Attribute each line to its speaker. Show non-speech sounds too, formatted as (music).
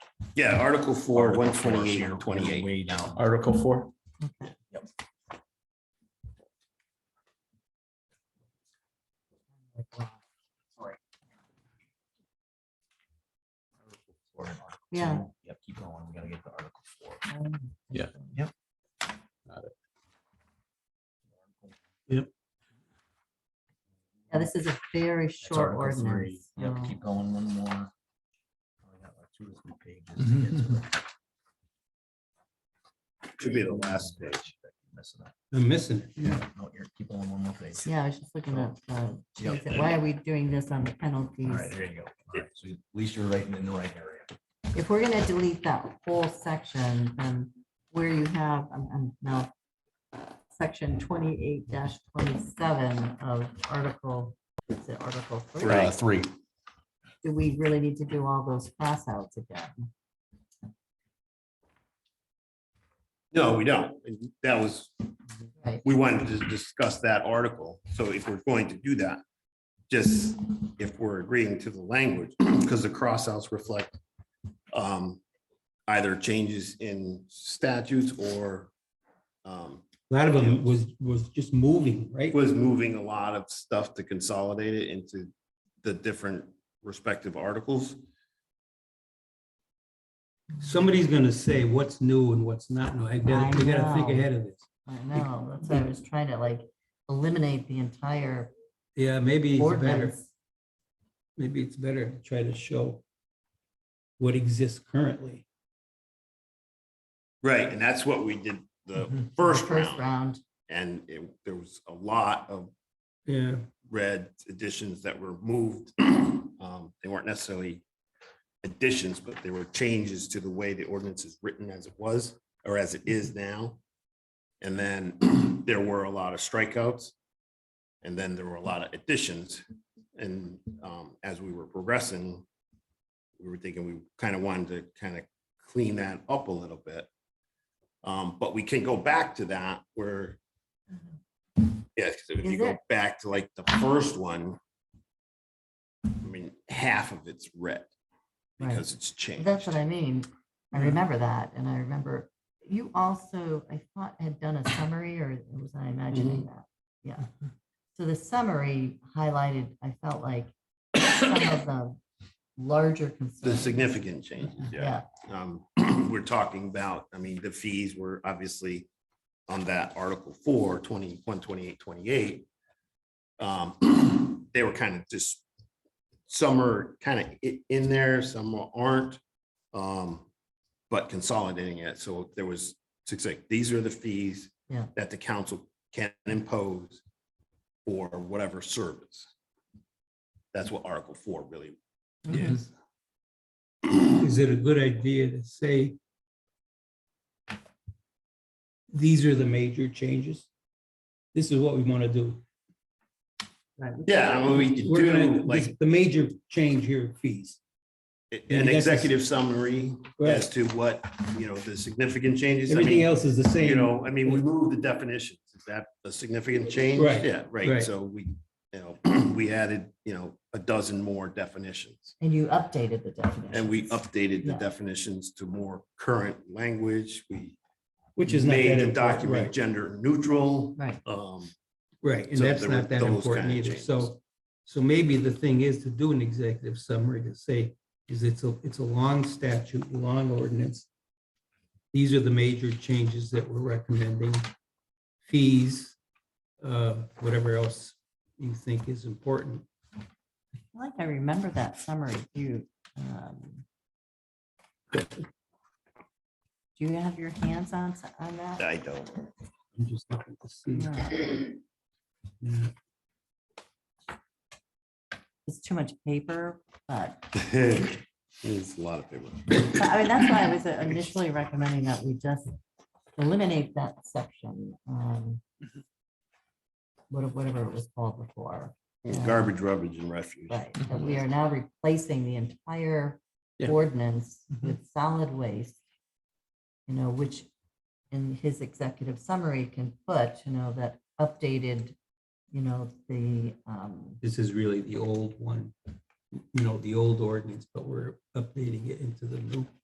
Speaker 1: Yeah, Article four, one twenty-eight,
Speaker 2: We're
Speaker 1: twenty-eight.
Speaker 2: Way down.
Speaker 3: Article four.
Speaker 2: Or in Article
Speaker 4: Yeah.
Speaker 2: two. Yep, keep going. We gotta get to Article four.
Speaker 4: Yeah, this is a very
Speaker 2: That's
Speaker 4: short
Speaker 2: Article three.
Speaker 4: ordinance.
Speaker 2: Yep,
Speaker 4: so-
Speaker 2: keep going one more. We got like two or three pages to get to it.
Speaker 1: Should be the last page.
Speaker 2: Missing it.
Speaker 5: I'm missing it.
Speaker 2: Yeah, No, you're keep going one more page.
Speaker 4: Yeah, I was just looking at, uh,
Speaker 2: Yep.
Speaker 4: geez, why are we doing this on the
Speaker 2: All right,
Speaker 4: penalties?
Speaker 2: there you go. All right, so at least you're right in the right area.
Speaker 4: If we're gonna delete that whole section, then where you have, I'm, I'm now, uh, section twenty-eight twenty-seven of article, is it article three?
Speaker 1: Right.
Speaker 3: Uh, Three.
Speaker 4: Do we really need to do all those crossouts again?
Speaker 1: No, we don't. That was,
Speaker 4: Right.
Speaker 1: we wanted to discuss that article. So if we're going to do that, just if we're agreeing to the language, (clears throat) because the crossouts reflect um, either changes in statutes or um,
Speaker 5: A lot of them was, was just moving, right?
Speaker 1: it was moving a lot of stuff to consolidate it into the different respective articles.
Speaker 5: Somebody's gonna say what's new and what's not new. I gotta, we gotta think
Speaker 4: I know.
Speaker 5: ahead of this.
Speaker 4: I know, that's why I was trying to like eliminate the entire
Speaker 5: Yeah, maybe it's better,
Speaker 4: ordinance.
Speaker 5: maybe it's better to try to show what exists currently.
Speaker 1: Right, and that's what we did the
Speaker 2: Mhm.
Speaker 1: first
Speaker 4: First
Speaker 1: round.
Speaker 4: round,
Speaker 1: And it, there was a lot of
Speaker 5: Yeah,
Speaker 1: red additions that were moved. Um, They weren't necessarily additions, but they were changes to the way the ordinance is written as it was, or as it is now. And then (clears throat) there were a lot of strikeouts. And then there were a lot of additions. And um, as we were progressing, we were thinking we kind of wanted to kind of clean that up a little bit. Um, But we can go back to that where Yes, because if
Speaker 4: Mm-hmm. Is
Speaker 1: you go
Speaker 4: it?
Speaker 1: back to like the first one, I mean, half of it's red
Speaker 4: Right.
Speaker 1: because it's changed.
Speaker 4: that's what I mean. I
Speaker 1: Mm.
Speaker 5: Yeah.
Speaker 4: remember that, and I remember you also, I thought had done a summary, or was I imagining
Speaker 1: Mm-hmm.
Speaker 4: that? Yeah. So the summary highlighted, I felt like some of the larger
Speaker 1: The
Speaker 4: concerns.
Speaker 1: significant changes, yeah.
Speaker 4: Yeah,
Speaker 1: Um, (clears throat) We're talking about, I mean, the fees were obviously on that Article 4, 20, 128, 28. Um, (clears throat) They were kind of just, some are kind of i- in there, some aren't. um, But consolidating it, so there was, it's like, these are the fees
Speaker 4: Yeah.
Speaker 1: that the council can impose for whatever service. That's what Article 4 really is.
Speaker 5: (clears throat) is it a good idea to say these are the major changes? This is what we wanna do.
Speaker 1: Yeah, I mean, we could
Speaker 5: We're gonna-
Speaker 1: do like
Speaker 5: this- The major change here, fees.
Speaker 1: an
Speaker 5: that's-
Speaker 1: executive summary as
Speaker 5: Right.
Speaker 1: to what, you know, the significant changes. I
Speaker 5: Everything
Speaker 1: mean,
Speaker 5: else is the same.
Speaker 1: You know, I mean, we moved the definitions. Is that a significant change?
Speaker 5: Right,
Speaker 1: Yeah, right.
Speaker 5: right.
Speaker 1: So we, you know, (clears throat) we added, you know, a dozen more definitions.
Speaker 4: and you updated the definition.
Speaker 1: And we updated the
Speaker 4: Yeah.
Speaker 1: definitions to more current language. We
Speaker 5: Which is not that
Speaker 1: made the
Speaker 5: important,
Speaker 1: document
Speaker 5: right,
Speaker 1: gender neutral.
Speaker 4: Right,
Speaker 1: Um,
Speaker 5: Right, and
Speaker 1: So
Speaker 5: that's
Speaker 1: there were
Speaker 5: not that
Speaker 1: those
Speaker 5: important
Speaker 1: kinda
Speaker 5: either.
Speaker 1: changes.
Speaker 5: So, so maybe the thing is to do an executive summary to say, is it's a, it's a long statute, long ordinance. These are the major changes that we're recommending. Fees, uh, whatever else you think is important.
Speaker 4: I feel like I remember that summary, you. um, Do you have your hands on, s- on that?
Speaker 1: I don't.
Speaker 5: I'm just looking to see.
Speaker 4: No,
Speaker 5: Yeah.
Speaker 4: It's too much paper, but
Speaker 1: (laughs) There's a lot of people.
Speaker 4: So,
Speaker 5: (laughs)
Speaker 4: I mean, that's why I was initially recommending that we just eliminate that section. um, what- Whatever it was called before,
Speaker 1: Garbage, rubbish and refuse.
Speaker 4: but that we are now replacing the entire
Speaker 5: Yeah.
Speaker 4: ordinance with solid waste. You know, which in his executive summary can put, you know, that updated, you know, the, um,
Speaker 5: This is really the old one, you know, the old ordinance, but we're updating it into the new.